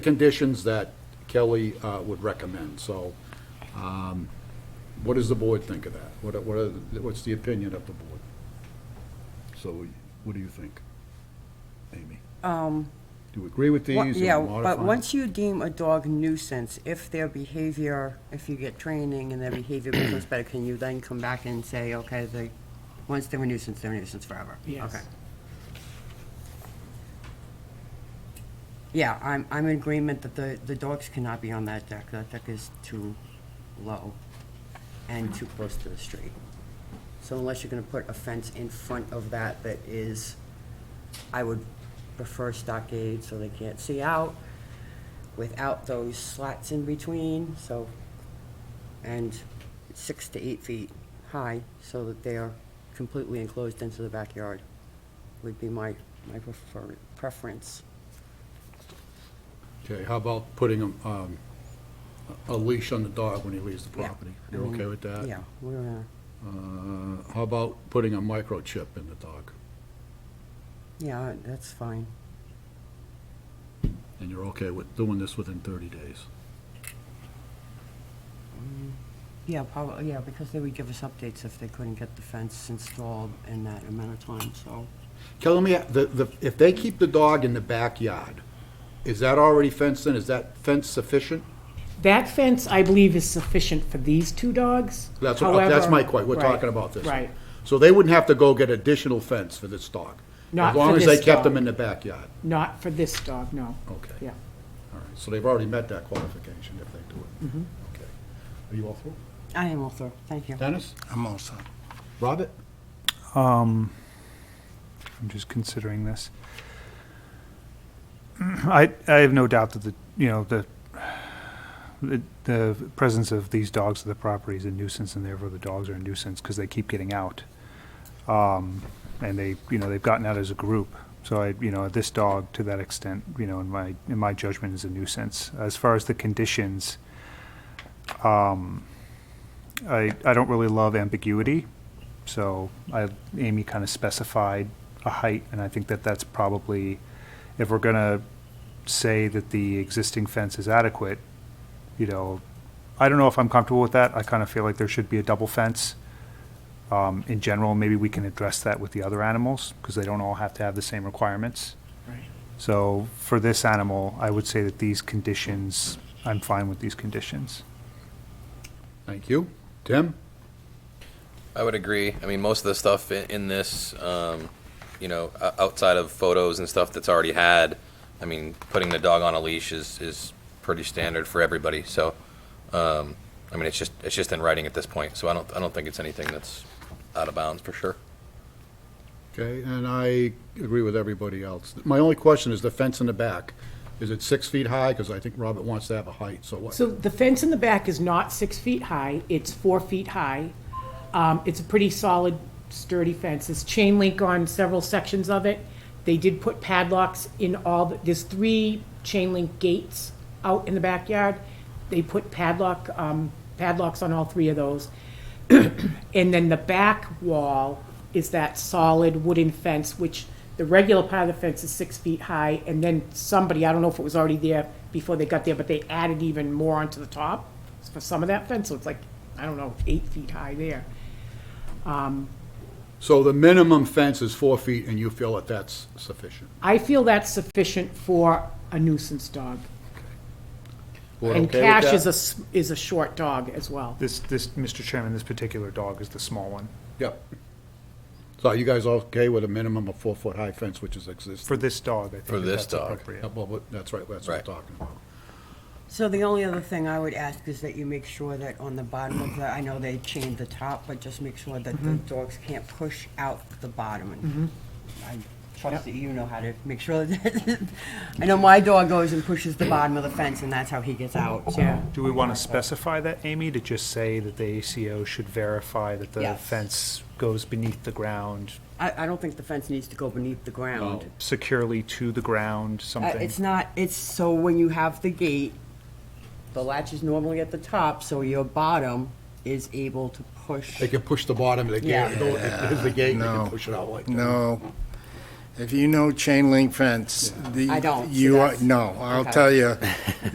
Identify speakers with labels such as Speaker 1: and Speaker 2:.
Speaker 1: conditions that Kelly uh, would recommend, so um, what does the board think of that? What, are- what, are- what's the opinion of the board? So what do you think, Amy? Do you agree with these?
Speaker 2: Wha-
Speaker 1: or
Speaker 2: Um, Yeah,
Speaker 1: modify
Speaker 2: but
Speaker 1: them?
Speaker 2: once you deem a dog nuisance, if their behavior, if you get training and their behavior becomes better, can you then come back and say, okay, they, once they're a nuisance, they're a nuisance forever?
Speaker 3: Yes.
Speaker 2: Okay. Yeah, I'm, I'm in agreement that the, the dogs cannot be on that deck. That deck is too low and too close to the street. So unless you're gonna put a fence in front of that that is, I would prefer stockade so they can't see out without those slats in between, so, and six to eight feet high so that they are completely enclosed into the backyard would be my, my prefer, preference.
Speaker 1: Okay, how about putting um, um, a leash on the dog when he leaves the
Speaker 2: Yeah.
Speaker 1: property?
Speaker 2: I
Speaker 1: You're okay
Speaker 2: mean,
Speaker 1: with that?
Speaker 2: Yeah, we're, uh,
Speaker 1: Uh, How about putting a microchip in the dog?
Speaker 2: yeah, that's fine.
Speaker 1: And you're okay with doing this within 30 days?
Speaker 2: Yeah, probably, yeah, because they would give us updates if they couldn't get the fence installed in that amount of time, so.
Speaker 1: Tell me, the, the, if they keep the dog in the backyard, is that already fenced in? Is that fence sufficient?
Speaker 3: That fence, I believe, is sufficient for these two dogs.
Speaker 1: That's, what- that's
Speaker 3: However-
Speaker 1: my question, we're
Speaker 3: Right,
Speaker 1: talking about this.
Speaker 3: Right.
Speaker 1: So they wouldn't have to go get additional fence for this dog?
Speaker 3: Not for
Speaker 1: As long as
Speaker 3: this
Speaker 1: they kept them
Speaker 3: dog.
Speaker 1: in the backyard?
Speaker 3: Not for this dog, no.
Speaker 1: Okay.
Speaker 3: Yeah.
Speaker 1: All right, so they've already met that qualification if they do it?
Speaker 3: Mm-hmm.
Speaker 1: Okay. Are you all through?
Speaker 2: I am all through, thank you.
Speaker 1: Dennis?
Speaker 4: I'm all set.
Speaker 1: Robert?
Speaker 5: I'm just considering this. I, I have no doubt that the, you know, the, the, the presence of these dogs at the property is a nuisance and therefore the dogs are a nuisance because they keep getting out. Um, and they, you know, they've gotten out as a group. So I, you know, this dog to that extent, you know, in my, in my judgment is a nuisance. As far as the conditions, um, I, I don't really love ambiguity. So I, Amy kind of specified a height, and I think that that's probably, if we're gonna say that the existing fence is adequate, you know, I don't know if I'm comfortable with that. I kind of feel like there should be a double fence. Um, in general, maybe we can address that with the other animals, because they don't all have to have the same requirements.
Speaker 3: Right.
Speaker 5: So for this animal, I would say that these conditions, I'm fine with these conditions.
Speaker 1: Thank you. Tim?
Speaker 6: I would agree. I mean, most of the stuff in, in this, um, you know, o- outside of photos and stuff that's already had, I mean, putting the dog on a leash is, is pretty standard for everybody. So, um, I mean, it's just it's just in writing at this point. So I don't I don't think it's anything that's out of bounds for sure.
Speaker 1: Okay, and I agree with everybody else. My only question is the fence in the back. Is it six feet high? Because I think Robert wants to have a height, so what?
Speaker 3: So the fence in the back is not six feet high, it's four feet high. Um, It's a pretty solid sturdy fence. It's chain link on several sections of it. They did put padlocks in all, the- there's three chain link gates out in the backyard. They put padlock, um, padlocks on all three of those. And then the back wall is that solid wooden fence, which the regular part of the fence is six feet high. And then somebody, I don't know if it was already there before they got there, but they added even more onto the top for some of that fence. So it's like, I don't know, eight feet high there.
Speaker 1: So the minimum fence is four feet, and you feel that that's sufficient?
Speaker 3: I feel that's sufficient for a nuisance dog.
Speaker 1: Board
Speaker 3: And
Speaker 1: okay with
Speaker 3: Cash
Speaker 1: that?
Speaker 3: is a, s- is a short dog as well.
Speaker 5: This, this, Mr. Chairman, this particular dog is the small one.
Speaker 1: Yep. So are you guys all okay with a minimum of four-foot-high fence, which is
Speaker 5: For
Speaker 1: existing?
Speaker 5: this dog, I think
Speaker 6: For
Speaker 5: that
Speaker 6: this
Speaker 5: that's
Speaker 6: dog.
Speaker 5: appropriate.
Speaker 1: Yeah, well, but That's right, that's what we're
Speaker 6: Right.
Speaker 1: talking about.
Speaker 2: So the only other thing I would ask is that you make sure that on the bottom of the, I know they chained the top, but just make sure that the dogs can't push out the bottom. And I trust that you know how to make sure that, I know my dog goes and pushes the bottom of the fence and that's how he gets out, so.
Speaker 3: Yeah.
Speaker 5: Do we want to specify that, Amy, to just say that the ACO should verify that the
Speaker 2: Yes.
Speaker 5: fence goes beneath the ground,
Speaker 2: I, I don't think the fence needs to go beneath the ground.
Speaker 5: securely to the ground,
Speaker 2: Uh,
Speaker 5: something?
Speaker 2: It's not, it's, so when you have the gate, the latch is normally at the top, so your bottom is able to push.
Speaker 1: They can push the bottom of the gate,
Speaker 2: Yeah.
Speaker 1: there's the gate, they can
Speaker 4: No.
Speaker 1: push it out like that.
Speaker 4: No. If you know chain link fence, the.
Speaker 2: I don't, so
Speaker 4: You, are-
Speaker 2: that's-
Speaker 4: no, I'll
Speaker 2: okay.
Speaker 4: tell you,